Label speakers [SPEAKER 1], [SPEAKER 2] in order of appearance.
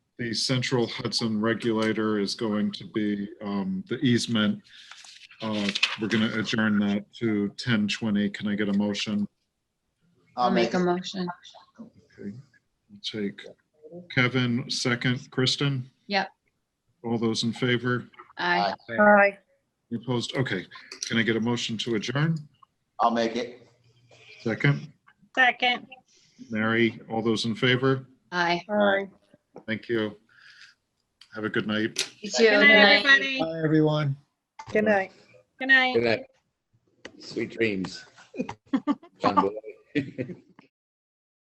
[SPEAKER 1] the central Hudson regulator is going to be um, the easement. Uh, We're going to adjourn that to 1020. Can I get a motion?
[SPEAKER 2] I'll make
[SPEAKER 3] a
[SPEAKER 2] a,
[SPEAKER 3] motion.
[SPEAKER 1] Okay, I'll Take Kevin, second. Kristen?
[SPEAKER 3] Yep.
[SPEAKER 1] All those in favor?
[SPEAKER 3] Aye.
[SPEAKER 4] Aye.
[SPEAKER 1] Opposed? Okay. Can I get a motion to adjourn?
[SPEAKER 2] I'll make it.
[SPEAKER 1] Second.
[SPEAKER 4] Second.
[SPEAKER 1] Mary, all those in favor?
[SPEAKER 3] Aye.
[SPEAKER 4] Aye.
[SPEAKER 1] Thank you. Have a good night.
[SPEAKER 3] You
[SPEAKER 2] Good
[SPEAKER 3] too. Good
[SPEAKER 4] Good night,
[SPEAKER 3] night.
[SPEAKER 4] everybody.
[SPEAKER 5] Bye, everyone.
[SPEAKER 4] Good night. Good night.
[SPEAKER 6] Good night. Sweet dreams. John Boy.